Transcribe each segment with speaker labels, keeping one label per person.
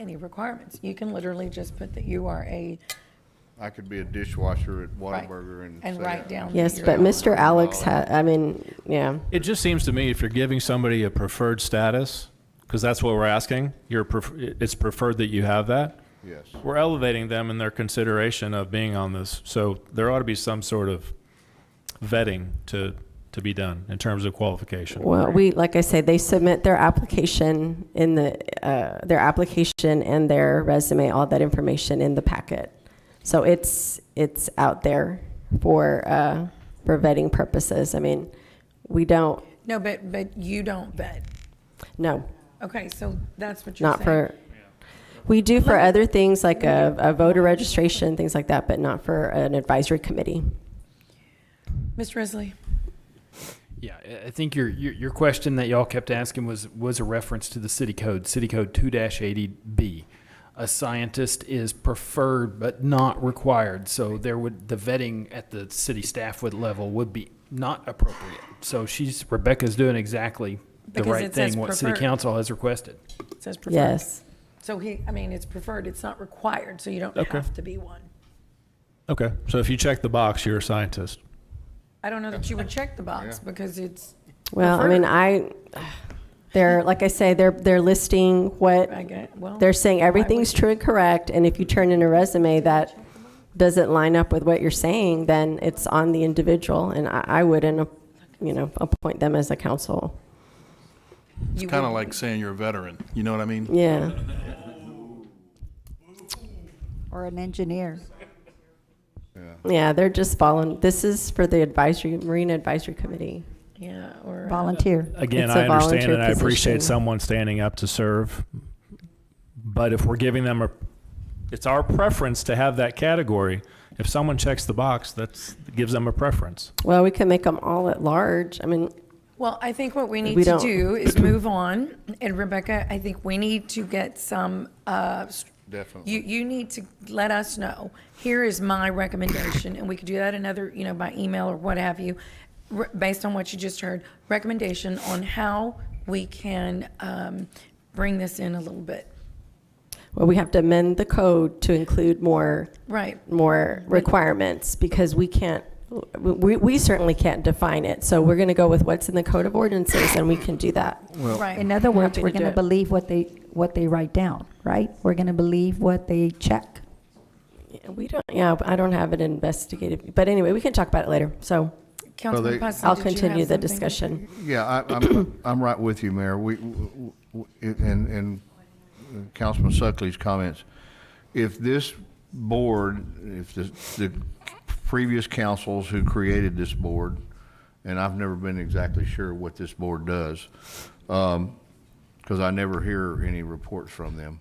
Speaker 1: any requirements. You can literally just put that you are a,
Speaker 2: I could be a dishwasher at
Speaker 1: right,
Speaker 2: Whataburger and say.
Speaker 1: and write down. that
Speaker 3: Yes,
Speaker 1: you're
Speaker 3: but
Speaker 1: not.
Speaker 3: Mr. Alex ha, I mean, yeah.
Speaker 4: It just seems to me if you're giving somebody a preferred status, because that's what we're asking, you're, pref- it's preferred that you have that.
Speaker 2: Yes.
Speaker 4: We're elevating them in their consideration of being on this. So there ought to be some sort of vetting to, to be done in terms of qualification.
Speaker 3: Well, we, like I say, they submit their application in the, uh, their application and their resume, all that information in the packet. So it's, it's out there for, uh, for vetting purposes. I mean, we don't,
Speaker 1: No, but, but you don't vet.
Speaker 3: no,
Speaker 1: Okay, so that's what you're saying.
Speaker 3: not for, we do for other things like a, a voter registration, things like that, but not for an advisory committee.
Speaker 1: Mr. Risley,
Speaker 5: Yeah, I- I think your, your your question that y'all kept asking was was a reference to the city code, city code two eighty B. A scientist is preferred but not required, so there would the vetting at the city staff would level would be not appropriate. So she's Rebecca's doing exactly the
Speaker 1: Because
Speaker 5: right
Speaker 1: it says
Speaker 5: thing what city
Speaker 1: preferred.
Speaker 5: council has requested.
Speaker 1: it says preferred.
Speaker 3: Yes.
Speaker 1: So he, I mean, it's preferred, it's not required, so you don't
Speaker 4: Okay.
Speaker 1: have to be one.
Speaker 4: Okay, so if you check the box, you're a scientist.
Speaker 1: I don't know that you would check the box because it's,
Speaker 3: Well, I mean, I, they're, like I say, they're, they're listing what,
Speaker 1: I get, well.
Speaker 3: they're saying everything's true and correct, and if you turn in a resume that doesn't line up with what you're saying, then it's on the individual, and I, I wouldn't, you know, appoint them as a council.
Speaker 6: Kind
Speaker 1: you
Speaker 6: of
Speaker 1: wouldn't-
Speaker 6: like saying you're a veteran, you know what I mean?
Speaker 3: Yeah,
Speaker 7: or an engineer.
Speaker 3: yeah, they're just following, this is for the advisory, Marine Advisory Committee.
Speaker 1: Yeah, or. uh,
Speaker 7: Volunteer.
Speaker 4: Again,
Speaker 3: It's a
Speaker 4: I understand
Speaker 3: volunteer
Speaker 4: and I
Speaker 3: position.
Speaker 4: appreciate someone standing up to serve. But if we're giving them a, it's our preference to have that category. If someone checks the box, that's, gives them a preference.
Speaker 3: Well, we can make them all at large, I mean,
Speaker 1: Well, I think what we need
Speaker 3: We
Speaker 1: to
Speaker 3: don't-
Speaker 1: do is move on. And Rebecca, I think we need to get some, uh, s-
Speaker 2: Definitely.
Speaker 1: you, you need to let us know, here is my recommendation, and we could do that another, you know, by email or what have you, re- based on what you just heard, recommendation on how we can um, bring this in a little bit.
Speaker 3: well, we have to amend the code to include more
Speaker 1: Right,
Speaker 3: more requirements because we can't, we, we certainly can't define it. So we're going to go with what's in the code of ordinances and we can do that.
Speaker 1: right.
Speaker 7: In other words,
Speaker 3: Happy
Speaker 7: we're
Speaker 3: to
Speaker 7: going to
Speaker 3: do it.
Speaker 7: believe what they, what they write down, right? We're going to believe what they check.
Speaker 3: We don't, yeah, I don't have it investigated, but anyway, we can talk about it later. So
Speaker 1: Councilman
Speaker 2: they-
Speaker 1: Pusley,
Speaker 3: I'll
Speaker 1: did you have
Speaker 3: continue the
Speaker 1: something?
Speaker 3: discussion.
Speaker 2: Yeah, I, I'm, I'm right with you, Mayor. We, w- w- and, and uh, Councilman Suckley's comments. If this board, if the, the previous councils who created this board, and I've never been exactly sure what this board does, um, because I never hear any reports from them.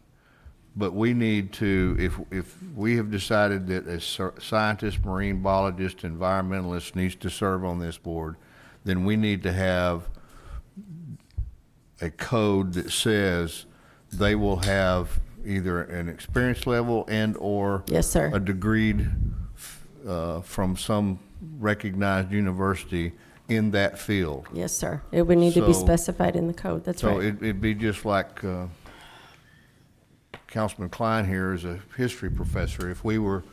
Speaker 2: But we need to, if, if we have decided that a cer- scientist, marine biologist, environmentalist needs to serve on this board, then we need to have a code that says they will have either an experience level and/or
Speaker 3: Yes,
Speaker 2: a
Speaker 3: sir.
Speaker 2: degreed uh, from some recognized university in that field.
Speaker 3: Yes, sir. It would need to be
Speaker 2: So-
Speaker 3: specified in the code. That's
Speaker 2: So
Speaker 3: right.
Speaker 2: it- it'd be just like uh, Councilman Klein here is a history professor. If we were,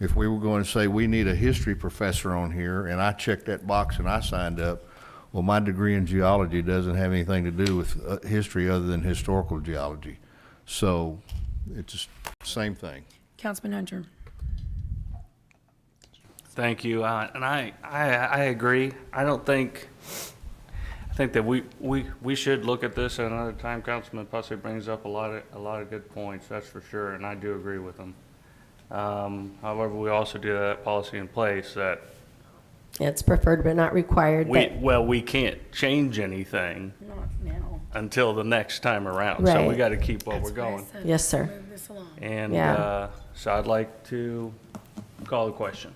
Speaker 2: if we were going to say, we need a history professor on here, and I checked that box and I signed up, well, my degree in geology doesn't have anything to do with uh, history other than historical geology. So it's the same thing.
Speaker 1: Councilman Hunter.
Speaker 8: Thank you, uh, and I, I I agree. I don't think I think that we, we, we should look at this at another time. Councilman Pussy brings up a lot of a lot of good points, that's for sure, and I do agree with him. Um, however, we also do have that policy in place that
Speaker 3: Yeah, It's preferred but not required,
Speaker 8: we
Speaker 3: but
Speaker 8: well we can't change anything until the next time around. So we
Speaker 3: Right.
Speaker 8: got to keep what we're going.
Speaker 3: yes, sir.
Speaker 8: And
Speaker 3: Yeah.
Speaker 8: uh, so I'd like to call the question.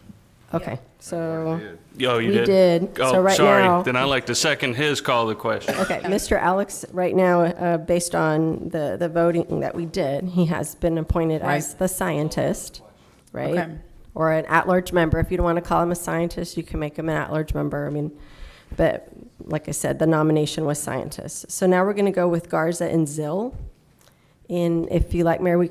Speaker 3: Okay, so,
Speaker 8: Oh, you
Speaker 3: We
Speaker 8: did.
Speaker 3: did.
Speaker 8: Oh,
Speaker 3: So right
Speaker 8: sorry.
Speaker 3: now-
Speaker 8: Then I'd like to second his call the question.
Speaker 3: okay, Mr. Alex, right now, uh, based on the, the voting that we did, he has been appointed as
Speaker 1: Right.
Speaker 3: the scientist, right?
Speaker 1: Okay.
Speaker 3: Or an at-large member. If you don't want to call him a scientist, you can make him an at-large member. I mean, but like I said, the nomination was scientist. So now we're going to go with Garza and Zill. And if you like, Mayor, we